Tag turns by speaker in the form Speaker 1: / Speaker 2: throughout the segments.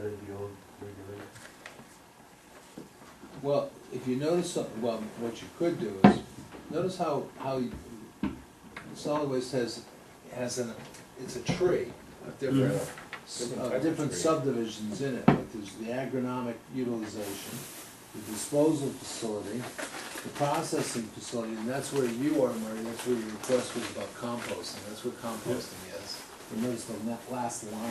Speaker 1: that in the old regulation?
Speaker 2: Well, if you notice something, well, what you could do is, notice how, how you- solid waste has, has an, it's a tree of different, s-
Speaker 3: Mm-hmm.
Speaker 4: Different type
Speaker 2: of
Speaker 4: of
Speaker 2: different
Speaker 4: tree.
Speaker 2: subdivisions in it. Like there's the agronomic utilization, the disposal facility, the processing facility, and that's where you are, Marty, that's where your request was about composting, that's what composting is. And notice the la- last line of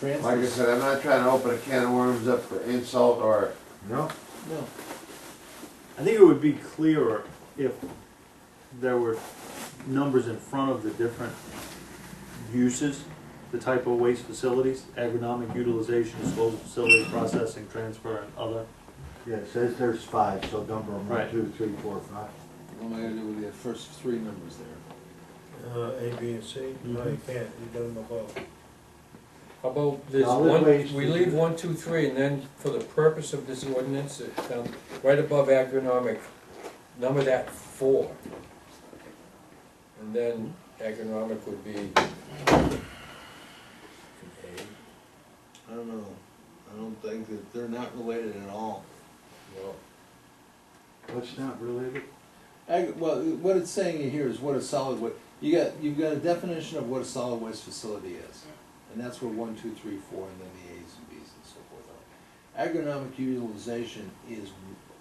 Speaker 2: that.
Speaker 3: Like I
Speaker 2: Transfer-
Speaker 3: said, I'm not trying to open a can of worms up for insult or,
Speaker 4: No,
Speaker 2: No.
Speaker 5: I think it would be clearer if there were numbers in front of the different uses, the type of waste facilities, agronomic utilization, disposal facility, processing, transfer, and other.
Speaker 6: Yeah, it says there's five, so number them, one,
Speaker 5: Right.
Speaker 6: two, three, four, five.
Speaker 2: What am I gonna do with the first three numbers there?
Speaker 1: Uh, A, B, and C? No, you can't, you don't know both.
Speaker 4: how about this
Speaker 6: Solid
Speaker 4: one,
Speaker 6: waste.
Speaker 4: we leave one, two, three, and then for the purpose of this ordinance, it, um, right above agronomic, number that four. And then agronomic would be. an A,
Speaker 2: I don't know, I don't think that, they're not related at all.
Speaker 4: no,
Speaker 6: What's not related?
Speaker 2: Ag, well, what it's saying here is what a solid wa, you got, you've got a definition of what a solid waste facility is. And that's where one, two, three, four, and then the As and Bs and so forth are. Agronomic utilization is,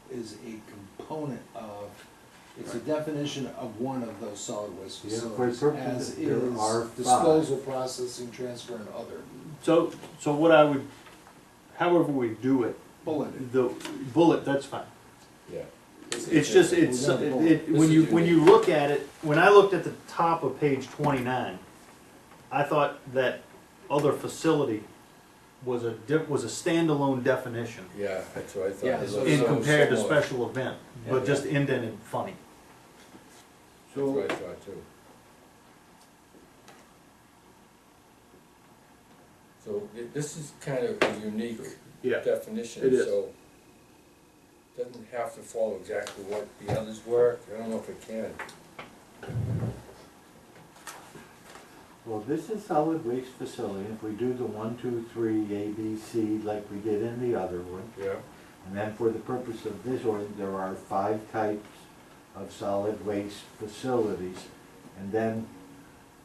Speaker 2: is a component of, it's a definition of one of those solid waste
Speaker 6: Yeah, for
Speaker 2: facilities.
Speaker 6: purposes,
Speaker 2: As
Speaker 6: there are
Speaker 2: is
Speaker 6: five.
Speaker 2: disposal, processing, transfer, and other.
Speaker 5: So, so what I would, however we do it,
Speaker 2: Bulleted.
Speaker 5: the bullet, that's fine.
Speaker 4: yeah.
Speaker 5: It's just, it's,
Speaker 2: We're
Speaker 5: it,
Speaker 2: gonna
Speaker 5: it-
Speaker 4: vote.
Speaker 5: when you,
Speaker 4: This is
Speaker 5: when you look at it, when I looked at the top of page twenty-nine, I thought that other facility was a, di- was a standalone definition
Speaker 4: Yeah, that's what I thought.
Speaker 2: Yeah,
Speaker 4: It
Speaker 2: so-
Speaker 4: looks
Speaker 5: in
Speaker 4: so
Speaker 5: compared to
Speaker 4: similar.
Speaker 5: special event,
Speaker 4: Yeah.
Speaker 5: but just indented funny.
Speaker 4: That's what I thought too. So thi- this is kind of a unique
Speaker 5: Yeah.
Speaker 4: definition,
Speaker 5: It is.
Speaker 4: so doesn't have to follow exactly what the others were, I don't know if it can.
Speaker 6: Well, this is solid waste facility, if we do the one, two, three, A, B, C, like we did in the other one,
Speaker 4: Yeah.
Speaker 6: and then for the purpose of this ordinance, there are five types of solid waste facilities, and then,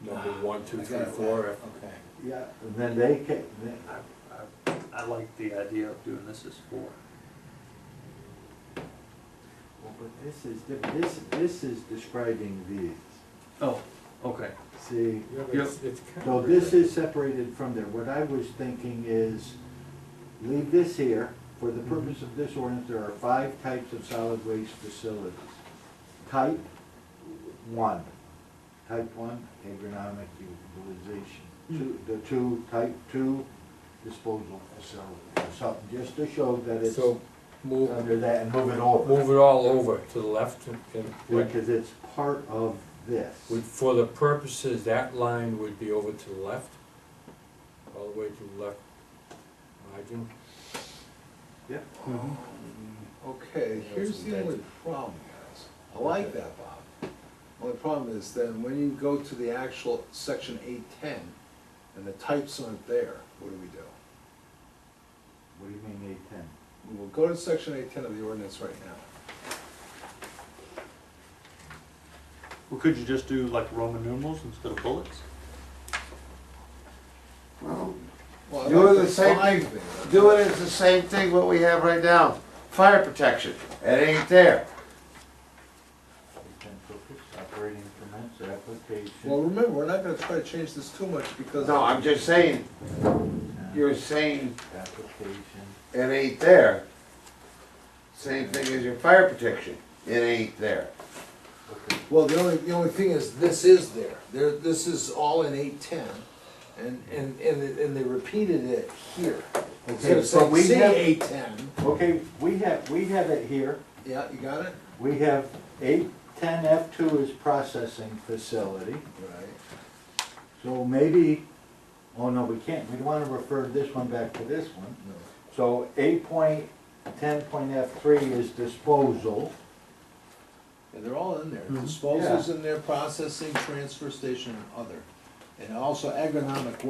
Speaker 4: Number one, two,
Speaker 2: I
Speaker 4: three,
Speaker 2: got it.
Speaker 4: four.
Speaker 2: Okay.
Speaker 6: yeah, and then they can,
Speaker 5: I, I, I like the idea of doing this as four.
Speaker 6: well, but this is, diff- this, this is describing these,
Speaker 5: Oh, okay.
Speaker 6: see?
Speaker 4: Yeah, but
Speaker 5: Yep.
Speaker 4: it's- it's kind
Speaker 6: So
Speaker 4: of
Speaker 6: this
Speaker 4: weird.
Speaker 6: is separated from there. What I was thinking is, leave this here, for the purpose of this ordinance, there are five types of solid waste facilities. Type one, type one, agronomic utilization. Two, the two, type two, disposal facility, or something, just to show that it's
Speaker 4: So move,
Speaker 6: under that and move it over.
Speaker 4: move it all over to the left and- and, right.
Speaker 6: Because it's part of this.
Speaker 4: Would- for the purposes, that line would be over to the left, all the way to the left margin.
Speaker 2: Okay, here's the only problem, guys. I like that, Bob. Only problem is then when you go to the actual section eight ten and the types aren't there, what do we do?
Speaker 6: What do you mean eight ten?
Speaker 2: We will go to section eight ten of the ordinance right now.
Speaker 5: Well, could you just do like Roman numerals instead of bullets?
Speaker 3: well,
Speaker 2: Well, I
Speaker 3: You
Speaker 2: like
Speaker 3: were the same
Speaker 2: five
Speaker 3: thing.
Speaker 2: thing, but-
Speaker 3: do it as the same thing what we have right now. Fire protection, it ain't there.
Speaker 6: Ten focus, operating permits, application.
Speaker 2: Well, remember, we're not gonna try to change this too much because.
Speaker 3: No, I'm just saying, you're saying
Speaker 6: uh, Application.
Speaker 3: it ain't there. Same thing as your fire protection, it ain't there.
Speaker 2: Well, the only, the only thing is, this is there, there, this is all in eight ten, and, and, and, it- and they repeated it here. Instead
Speaker 6: Okay,
Speaker 2: of
Speaker 6: so
Speaker 2: saying,
Speaker 6: we
Speaker 2: see
Speaker 6: have,
Speaker 2: eight ten,
Speaker 6: okay, we have, we have it here,
Speaker 2: yeah, you got it?
Speaker 6: we have eight, ten F two is processing facility.
Speaker 2: Right.
Speaker 6: So maybe, oh no, we can't, we wanna refer this one back to this one.
Speaker 2: No.
Speaker 6: So eight point, ten point F three is disposal.
Speaker 2: Yeah, they're all in there,
Speaker 5: Mhm.
Speaker 2: disposals in there, processing, transfer station and other. And also agronomic